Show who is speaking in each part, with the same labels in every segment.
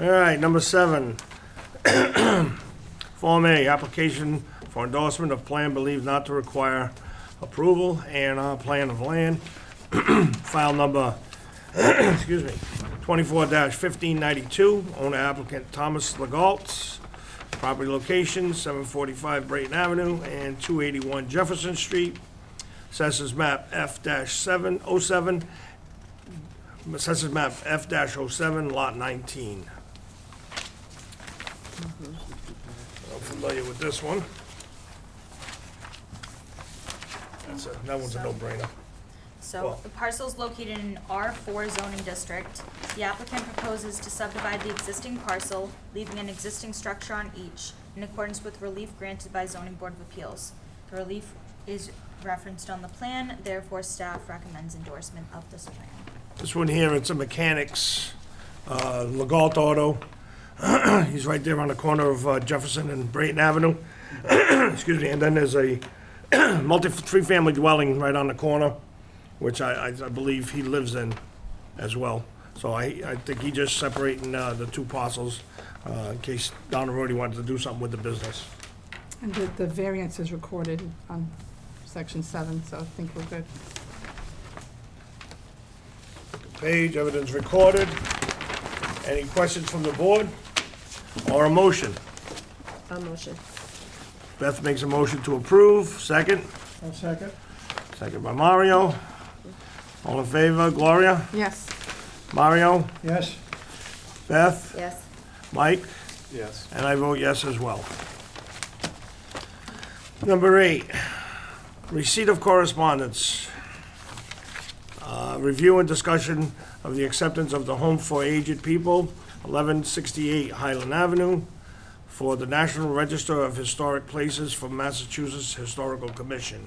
Speaker 1: All right, number seven. Form A, application for endorsement of plan believed not to require approval and on plan of land. File number, excuse me, twenty-four fifteen ninety-two, owner applicant Thomas Legault. Property location, seven forty-five Brayton Avenue and two eighty-one Jefferson Street. Assessors map F seven oh seven Assessors map F 7 lot nineteen. I'm familiar with this one. That's a, that one's a no-brainer.
Speaker 2: So
Speaker 1: Well-
Speaker 2: the parcel's located in R four zoning district. The applicant proposes to subdivide the existing parcel, leaving an existing structure on each in accordance with relief granted by zoning board of appeals. The relief is referenced on the plan, therefore staff recommends endorsement of this plan.
Speaker 1: This one here, it's a mechanics, uh, Legault Auto. He's right there on the corner of uh, Jefferson and Brayton Avenue. Excuse me, and then there's a multi, three-family dwelling right on the corner, which I, I I believe he lives in as well. So I, I think he just separating uh, the two parcels uh, in case down the road he wanted to do something with the business.
Speaker 3: And the, the variance is recorded on section seven, so I think we're good.
Speaker 1: Page, evidence recorded. Any questions from the board or a motion?
Speaker 4: A motion.
Speaker 1: Beth makes a motion to approve, second? second. Second by Mario. All in favor, Gloria?
Speaker 3: Yes,
Speaker 1: Mario?
Speaker 5: Yes?
Speaker 1: Beth?
Speaker 4: Yes.
Speaker 1: Mike?
Speaker 5: Yes.
Speaker 1: And I vote yes as well. Number eight, receipt of correspondence. Uh, Review and discussion of the acceptance of the Home for Aged People, 1168 Highland Avenue, for the National Register of Historic Places from Massachusetts Historical Commission.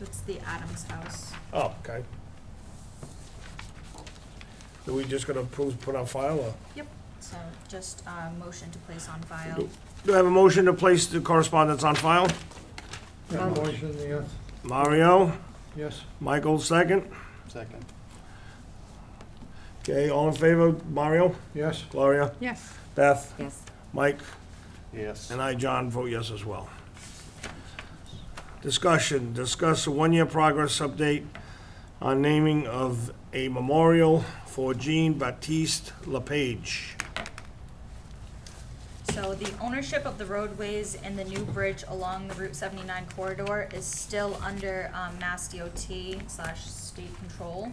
Speaker 2: It's the Adams House.
Speaker 1: Oh, okay. Are we just gonna approve, put on file, or?
Speaker 2: Yep. So just uh motion to place on file.
Speaker 1: Do do I have a motion to place the correspondence on file?
Speaker 5: A motion, yes?
Speaker 1: Mario?
Speaker 5: Yes?
Speaker 1: Michael, second.
Speaker 5: Second.
Speaker 1: Okay, all in favor, Mario,
Speaker 5: Yes?
Speaker 1: Gloria,
Speaker 3: yes.
Speaker 1: Beth,
Speaker 4: Yes.
Speaker 1: Mike,
Speaker 5: Yes.
Speaker 1: and I, John, vote yes as well. Discussion, discuss a one-year progress update on naming of a memorial for Jean Baptiste LePage.
Speaker 2: So the ownership of the roadways and the new bridge along the Route seventy-nine corridor is still under, um, Mass DOT slash state control.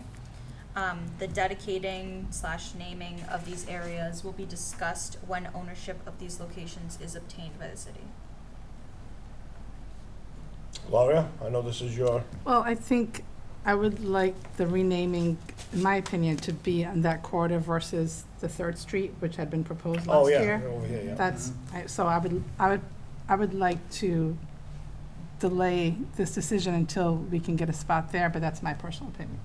Speaker 2: Um, the dedicating slash naming of these areas will be discussed when ownership of these locations is obtained by the city.
Speaker 1: Gloria, I know this is your,
Speaker 3: Well, I think I would like the renaming, in my opinion, to be on that corridor versus the Third Street, which had been proposed
Speaker 1: oh,
Speaker 3: last
Speaker 1: yeah,
Speaker 3: year.
Speaker 1: over here, yeah. Mm-hmm.
Speaker 3: That's, I- so I would, I would, I would like to delay this decision until we can get a spot there, but that's my personal opinion.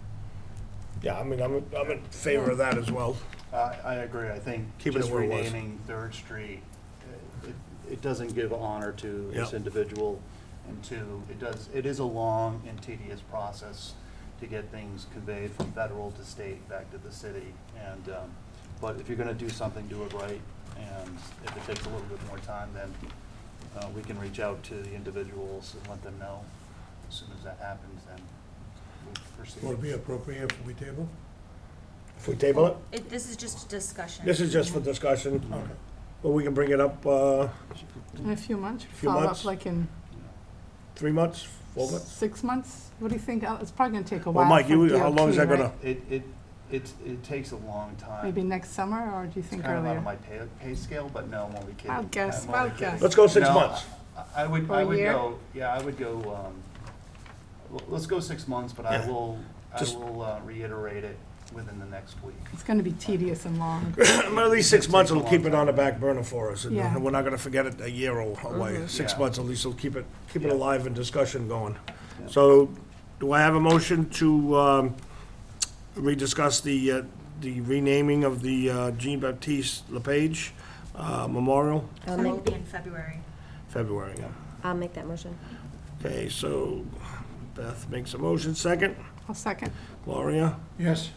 Speaker 1: Yeah, I mean, I'm, I'm in favor of that as well.
Speaker 6: I, I agree, I think
Speaker 1: Keep it
Speaker 6: just
Speaker 1: where it was.
Speaker 6: renaming Third Street, uh, it, it doesn't give honor to this
Speaker 1: Yeah.
Speaker 6: individual. And two, it does, it is a long and tedious process to get things conveyed from federal to state back to the city. And, um, but if you're gonna do something, do it right, and if it takes a little bit more time, then, uh, we can reach out to the individuals and let them know. As soon as that happens, then we'll proceed.
Speaker 5: Would it be appropriate if we table?
Speaker 1: If we table it,
Speaker 2: It, this is just a discussion.
Speaker 1: this is just for discussion,
Speaker 5: Okay.
Speaker 1: but we can bring it up, uh,
Speaker 3: In a few months,
Speaker 1: Few
Speaker 3: follow up
Speaker 1: months?
Speaker 3: like in
Speaker 1: three months, four months?
Speaker 3: six months? What do you think? Uh, It's probably gonna take a
Speaker 1: Well,
Speaker 3: while.
Speaker 1: Mike,
Speaker 3: for
Speaker 1: you, how
Speaker 3: DOT,
Speaker 1: long is that
Speaker 3: right?
Speaker 1: gonna?
Speaker 6: It, it, it, it takes a long time.
Speaker 3: Maybe next summer, or do you
Speaker 6: It's
Speaker 3: think
Speaker 6: kind of out
Speaker 3: earlier?
Speaker 6: of my pay, pay scale, but no, I'm only kidding.
Speaker 3: Wild guess,
Speaker 6: I'm only
Speaker 3: wild
Speaker 6: kidding.
Speaker 3: guess.
Speaker 1: Let's go six
Speaker 6: No,
Speaker 1: months.
Speaker 6: I- I would,
Speaker 3: Or a
Speaker 6: I would
Speaker 3: year?
Speaker 6: go, yeah, I would go, um, l- let's go six months, but I
Speaker 1: Yeah.
Speaker 6: will, I
Speaker 1: Just-
Speaker 6: will uh, reiterate it within the next week.
Speaker 3: It's gonna be tedious and long.
Speaker 1: At least six months will keep it on the back burner for us, and
Speaker 3: Yeah. Mm-hmm.
Speaker 1: we're not gonna forget it a year or away. Six
Speaker 6: Yeah.
Speaker 1: months at least will keep it, keep it
Speaker 6: Yeah.
Speaker 1: alive and discussion going.
Speaker 6: Yeah.
Speaker 1: So, do I have a motion to, um, rediscuss the, uh, the renaming of the uh, Jean Baptiste LePage uh, Memorial,
Speaker 4: I'll
Speaker 2: It will
Speaker 4: make,
Speaker 2: be in February.
Speaker 1: February? yeah.
Speaker 4: I'll make that motion.
Speaker 1: Okay, so Beth makes a motion, second.
Speaker 3: I'll second.
Speaker 1: Gloria,
Speaker 5: Yes?